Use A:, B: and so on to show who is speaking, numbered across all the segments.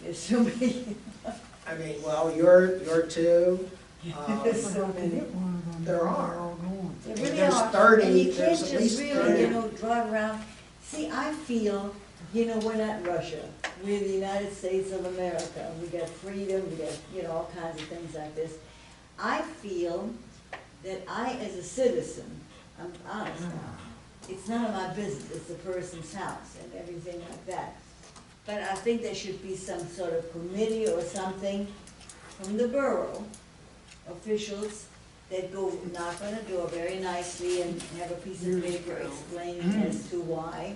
A: There's so many.
B: I mean, well, you're, you're two, um,
A: There's so many.
B: there are.
A: There really
B: There's
A: are.
B: 30,
A: And you
B: there's
A: can't
B: at
A: just
B: least
A: really, you
B: 30.
A: know, drive around. See, I feel, you know, we're not Russia. We're the United States of America. We got freedom, we got, you know, all kinds of things like this. I feel that I, as a citizen, I'm honest now, it's none of my business, it's the person's house and everything like that. But I think there should be some sort of committee or something from the borough officials that go knock on a door very nicely and have a piece of paper explaining as to why,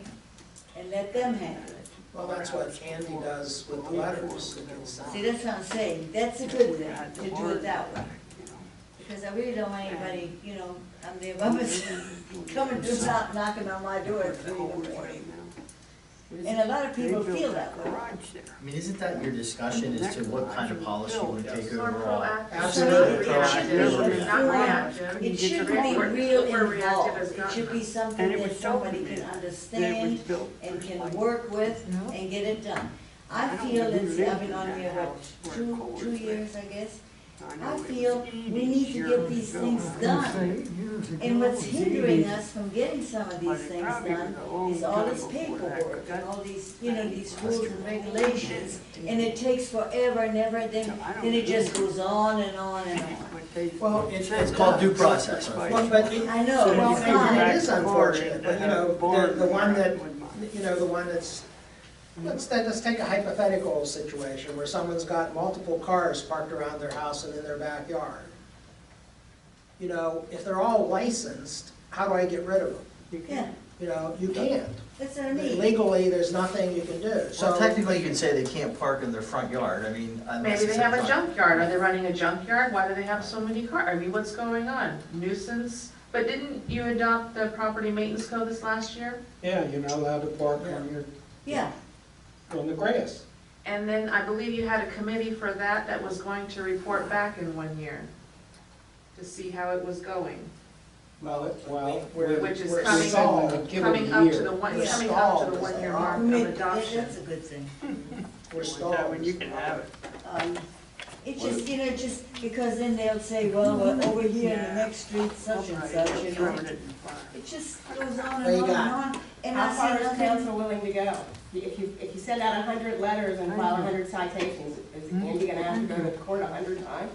A: and let them handle it.
B: Well, that's what Candy does with the letters. that get sent.
A: See, that's what I'm saying, that's a good thing, to do it that way. Because I really don't want anybody, you know, I'm there by myself, coming just out knocking on my door at three in the morning. And a lot of people feel that way.
C: I mean, isn't that your discussion as to what kind of policy you would take
D: More
C: overall?
D: proactive.
B: Absolutely.
D: Reactive is not reactive.
A: It should be
D: We're- we're
A: real
D: reactive is
A: involved, it
D: not-
A: should be something
E: And it
A: that
E: was so
A: somebody can
E: big
A: understand, and can work with
E: No.
A: and get it done. I
E: I don't
A: feel
E: think we
A: it's,
E: lived
A: I've been
E: in
A: on
E: that
A: here,
E: house
A: what,
E: where
A: two,
E: Cole's
A: two
E: lived.
A: years, I guess? I
E: know it
A: feel
E: was
A: we need to get
E: years
A: these
E: ago.
A: things done. And what's hindering us from getting some of
E: But
A: these
E: it
A: things
E: probably was
A: done
E: a long
A: is all
E: time
A: this
E: before that,
A: paperwork
E: but
A: and
E: that-
A: all these, you know, these
C: That's
A: rules
C: true.
A: and regulations. And it takes forever and ever, then,
E: No, I don't
A: then it just
E: think-
A: goes on and on and on.
E: What they-
B: Well, it's,
C: It's called due process.
B: Well, but it-
A: I know,
B: Well,
A: it's
B: and
A: fine.
B: It is unfortunate, but you know, the, the one that, you know, the one that's, let's, let's take a hypothetical situation where someone's got multiple cars parked around their house and in their backyard. You know, if they're all licensed, how do I get rid of them?
A: Yeah,
B: You know, you can't.
A: that's what I mean.
B: Legally, there's nothing you can do, so.
C: So technically, you can say they can't park in their front yard, I mean, unless
D: Maybe
C: it's.
D: they
C: in
D: have a
C: front-
D: junkyard, are they running a junkyard, why do they have so many cars, I mean, what's going on? Nuisance, but didn't you adopt the property maintenance code this last year?
F: Yeah, you're not allowed to park on your,
A: Yeah,
F: on the grass.
D: And then I believe you had a committee for that that was going to report back in one year to see how it was going,
F: Well, it- well,
B: We're-
D: which is
B: we're
D: coming,
F: stalled. Give it a
D: coming up to
F: year.
D: the one,
A: We're
D: coming up
B: stalled
D: to the
B: as
D: one-year
B: they
D: mark
B: are.
D: of
A: Make-
D: adoption.
A: that's a good thing.
B: We're stalled.
E: When you can have it.
A: Um, It just, you know, just, because then they'll say, well, we're over here in the next street, such and such, you know.
E: Throwing it in the fire.
A: It just goes on
B: There
A: and
B: you
A: on
B: go.
A: and on, and
G: How
A: I
G: far
A: see
G: is
A: nothing.
G: council willing to go? If you, if you send out a hundred letters and file a hundred citations, is Andy gonna have to go to court a hundred times?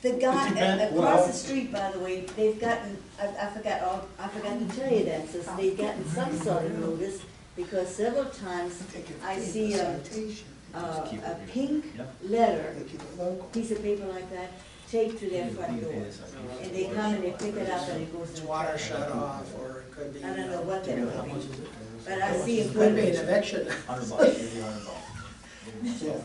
A: The guy,
F: depends-
A: a- across
F: well-
A: the street, by the way, they've gotten, I, I forgot, all- I forgot to tell you that, so they've gotten some sort of notice, because several times I see uh, a, a,
C: Just keep it
A: a
C: here.
A: pink
C: Yeah.
A: letter,
B: local.
A: piece of paper like that, taped to
C: You
A: their
C: can
A: front
C: pay
A: door.
C: this, I think.
A: And they come and they pick it up and it goes
B: It's
A: in the
B: water
A: trash.
B: shut off, or it could be.
A: I don't know what
C: Do
A: that
C: you know how
A: would
C: much
A: be,
C: is it?
A: but I see it.
B: Could be an eviction.
C: Hundred bucks, give you a hundred bucks.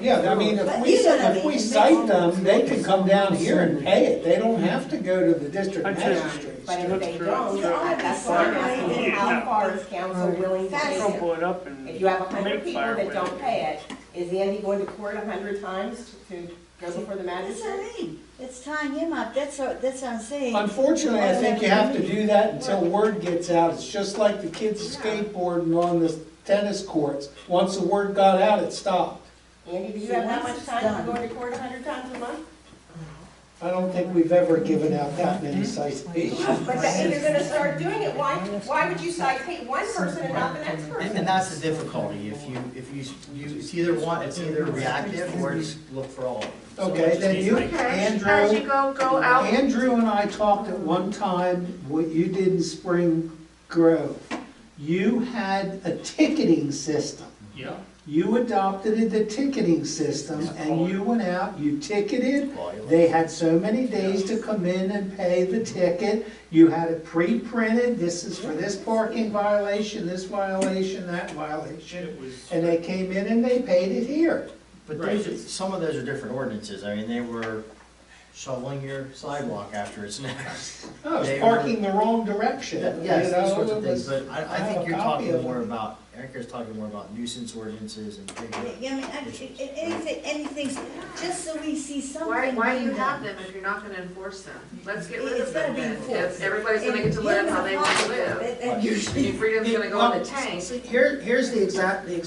F: Yeah, I mean, if
A: But
F: we,
A: you know what I
F: if we
A: mean.
F: cite them, they can come down here and pay it. They don't have to go to the district
E: I just-
F: magistrate.
G: But if they don't,
A: Yeah, I
G: that's why I'm asking, how
E: Yeah.
G: far is council willing to
A: Right.
G: go?
E: Crumple it up
G: If you
E: and
G: have a hundred
E: Make
G: people
E: fire
G: that
E: with
G: don't
E: it.
G: pay it, is Andy going to court a hundred times to go before the
A: That's what
G: magistrate?
A: I mean, it's tying him up, that's what, that's what I'm saying.
F: Unfortunately, I think you have to do that until word gets out. It's just like the kids skateboarding on the tennis courts. Once the word got out, it stopped.
G: Andy, do you
A: So
G: have that
A: once
G: much
A: it's
G: time to
A: done-
G: go to court a hundred times a month?
F: I don't think we've ever given out that many citations.
G: But that- if you're gonna start doing it, why, why would you cite one person and not the next
C: And, and that's the difficulty, if you, if you, you, it's either one, it's either reactive or just look for all of them. So
F: Okay, then you,
D: Okay,
F: Andrew.
D: as you go, go out
F: Andrew and I talked at one time, what you did in Spring Grove. You had a ticketing system.
E: Yeah.
F: You adopted the ticketing system and you went out, you ticketed. They had so many days to come in and pay the ticket. You had it pre-printed, this is for this parking violation, this violation, that violation. And they came in and they paid it here.
C: But those, are- some of those are different ordinances, I mean, they were shoveling your sidewalk after it's next.
F: Oh,
C: They
F: it's
C: were-
F: parking the wrong direction.
C: Yes,
F: you know,
C: those sorts of
F: it
C: things,
F: was-
C: but I, I
F: have
C: think
F: a
C: you're
F: copy
C: talking
F: of
C: more
F: it.
C: about, Erica's talking more about nuisance ordinances and big.
A: Yeah, I mean, I- it- it- anything, anything, just so we see something.
D: Why, why do you
A: being done.
D: have them if you're not gonna enforce them? Let's get rid
A: It's
D: of
A: gotta
D: them
A: be
D: then.
A: enforced.
D: If everybody's gonna get to live how they want to live.
A: That- that
D: I mean, freedom's gonna go in the tank.
B: See, Here, here's the exact, the